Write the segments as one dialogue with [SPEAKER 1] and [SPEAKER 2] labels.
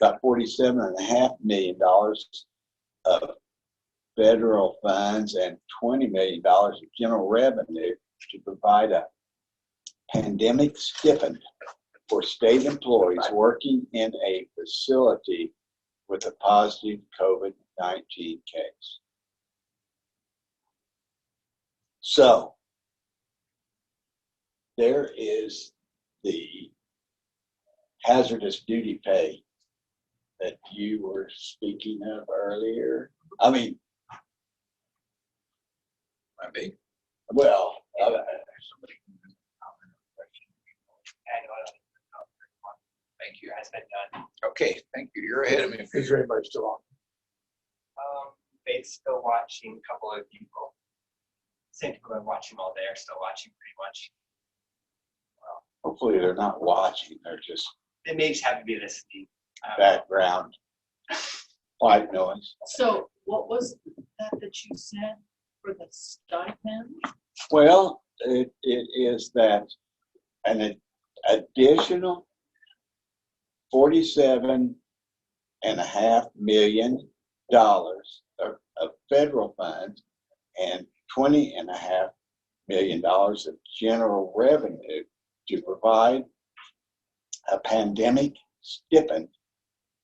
[SPEAKER 1] about forty-seven and a half million dollars of federal funds and twenty million dollars of general revenue to provide a pandemic stipend for state employees working in a facility with a positive COVID-19 case. So there is the hazardous duty pay that you were speaking of earlier. I mean,
[SPEAKER 2] I mean,
[SPEAKER 1] well, I-
[SPEAKER 2] thank you. Has been done. Okay, thank you. You're ahead of me.
[SPEAKER 3] Is there anybody still on?
[SPEAKER 4] Um, Faith's still watching a couple of people. Same people that watch him all day are still watching pretty much.
[SPEAKER 1] hopefully they're not watching, they're just
[SPEAKER 4] They may just have to be listening. Um, I don't know.
[SPEAKER 1] background white noise.
[SPEAKER 5] So what was that that you said for the stipend?
[SPEAKER 1] Well, it, it is that an ad- additional forty-seven and a half million dollars of, of federal funds and twenty and a half million dollars of general revenue to provide a pandemic stipend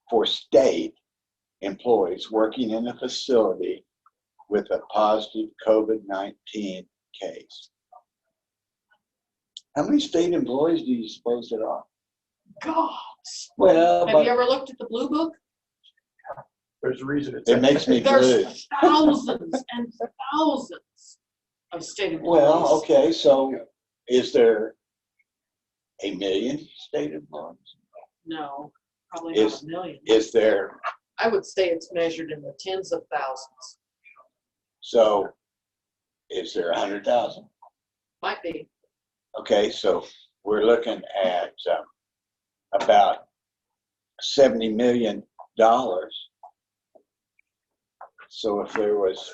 [SPEAKER 1] for state employees working in a facility with a positive COVID-19 case. How many state employees do you suppose there are?
[SPEAKER 5] God,
[SPEAKER 1] Well,
[SPEAKER 5] have you ever looked at the blue book?
[SPEAKER 3] There's a reason it's.
[SPEAKER 1] it makes me blue.
[SPEAKER 5] There's thousands and thousands of state
[SPEAKER 1] Well,
[SPEAKER 5] employees.
[SPEAKER 1] okay, so is there a million state employees?
[SPEAKER 5] No, probably not
[SPEAKER 1] Is-
[SPEAKER 5] a million.
[SPEAKER 1] Is there,
[SPEAKER 5] I would say it's measured in the tens of thousands,
[SPEAKER 1] so is there a hundred thousand?
[SPEAKER 5] might be.
[SPEAKER 1] Okay, so we're looking at um, about seventy million dollars. So if there was,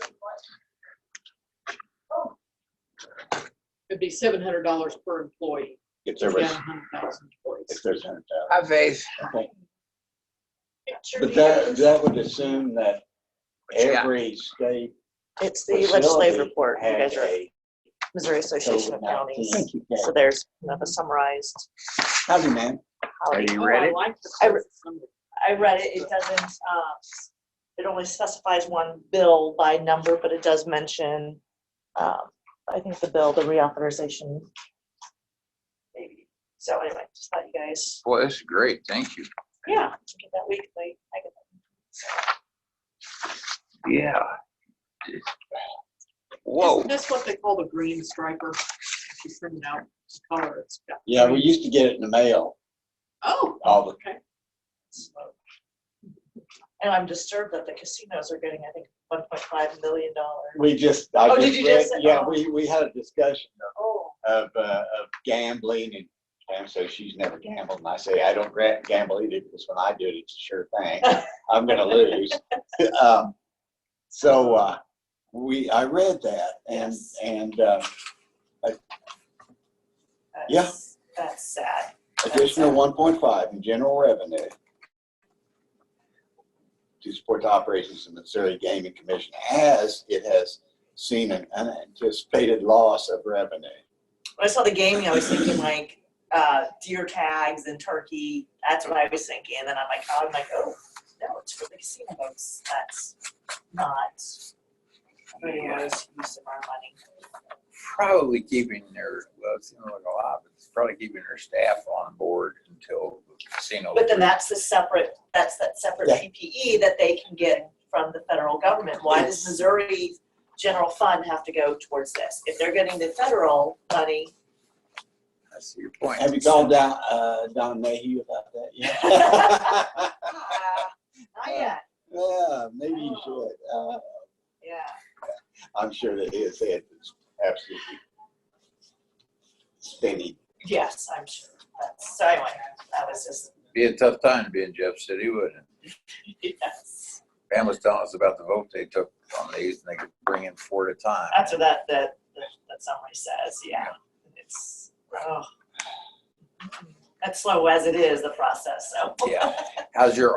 [SPEAKER 5] It'd be seven hundred dollars per employee.
[SPEAKER 1] if there
[SPEAKER 5] if you
[SPEAKER 1] was,
[SPEAKER 5] had 100,000
[SPEAKER 1] if
[SPEAKER 5] employees.
[SPEAKER 1] there's a hundred thousand.
[SPEAKER 2] Hi, Faith.
[SPEAKER 1] But that, that would assume that
[SPEAKER 2] What you got?
[SPEAKER 1] every state
[SPEAKER 6] It's the legislative
[SPEAKER 1] facility
[SPEAKER 6] report, you
[SPEAKER 1] had
[SPEAKER 6] guys are at
[SPEAKER 1] a
[SPEAKER 6] Missouri Association of Counties.
[SPEAKER 1] COVID-19.
[SPEAKER 6] So there's kind of a summarized.
[SPEAKER 1] Howdy, man.
[SPEAKER 6] how
[SPEAKER 2] Are
[SPEAKER 6] it-
[SPEAKER 2] you
[SPEAKER 5] Oh,
[SPEAKER 2] ready?
[SPEAKER 5] I like the
[SPEAKER 6] I re-
[SPEAKER 5] question.
[SPEAKER 6] I read it, it doesn't, um, it only specifies one bill by number, but it does mention, um, I think the bill, the reauthorization. Maybe, so anyway, just thought you guys,
[SPEAKER 2] Boy, this is great. Thank you.
[SPEAKER 6] yeah, get that weekly, I get
[SPEAKER 2] Yeah. Whoa.
[SPEAKER 5] Isn't this what they call the green striper? If You send it out, it's color, it's got.
[SPEAKER 1] Yeah, we used to get it in the mail,
[SPEAKER 5] Oh,
[SPEAKER 1] all the,
[SPEAKER 5] okay.
[SPEAKER 6] that. And I'm disturbed that the casinos are getting, I think, one point five million dollars.
[SPEAKER 1] we just, I
[SPEAKER 6] Oh,
[SPEAKER 1] just
[SPEAKER 6] did you
[SPEAKER 1] read-
[SPEAKER 6] just say-
[SPEAKER 1] Yeah,
[SPEAKER 6] oh.
[SPEAKER 1] we, we had a discussion
[SPEAKER 6] Oh,
[SPEAKER 1] of, uh, of gambling and, and so she's never gambled. And I say, I don't gra- gamble either because when I do it, it's a sure thing. I'm gonna lose. Um, So, uh, we, I read that and,
[SPEAKER 6] Yes.
[SPEAKER 1] and, uh, Yeah.
[SPEAKER 6] that's, that's sad.
[SPEAKER 1] Additional one point five in general revenue to support the operations of the Missouri Gaming Commission as it has seen an unanticipated loss of revenue.
[SPEAKER 6] When I saw the gaming, I was thinking like uh, deer tags and turkey. That's what I was thinking. And then I'm like, I'm like, oh no, it's for the casino folks. That's not a very wise use of our money.
[SPEAKER 2] Probably keeping their, well, it seems like a lot, but it's probably keeping their staff on board until the casino.
[SPEAKER 6] But then that's the separate. That's that separate
[SPEAKER 1] Yeah.
[SPEAKER 6] PPE that they can get from the federal government. Why does
[SPEAKER 1] Yes.
[SPEAKER 6] Missouri general fund have to go towards this? If they're getting the federal money,
[SPEAKER 2] I see your point.
[SPEAKER 1] Have you called down, uh, Don Mayhew about that yet?
[SPEAKER 6] ah, not yet.
[SPEAKER 1] Yeah, maybe you should. Uh,
[SPEAKER 6] Yeah.
[SPEAKER 1] I'm sure that his head is absolutely spinning.
[SPEAKER 6] Yes, I'm sure. That's, so anyway, that was just
[SPEAKER 2] Be a tough time to be in Jeff City, wouldn't it?
[SPEAKER 6] yes.
[SPEAKER 2] Pam was telling us about the vote they took on these and they could bring in four at a time.
[SPEAKER 6] That's what that, that, that summary says, yeah. It's, oh. That's slow as it is, the process, so.
[SPEAKER 2] Yeah. How's your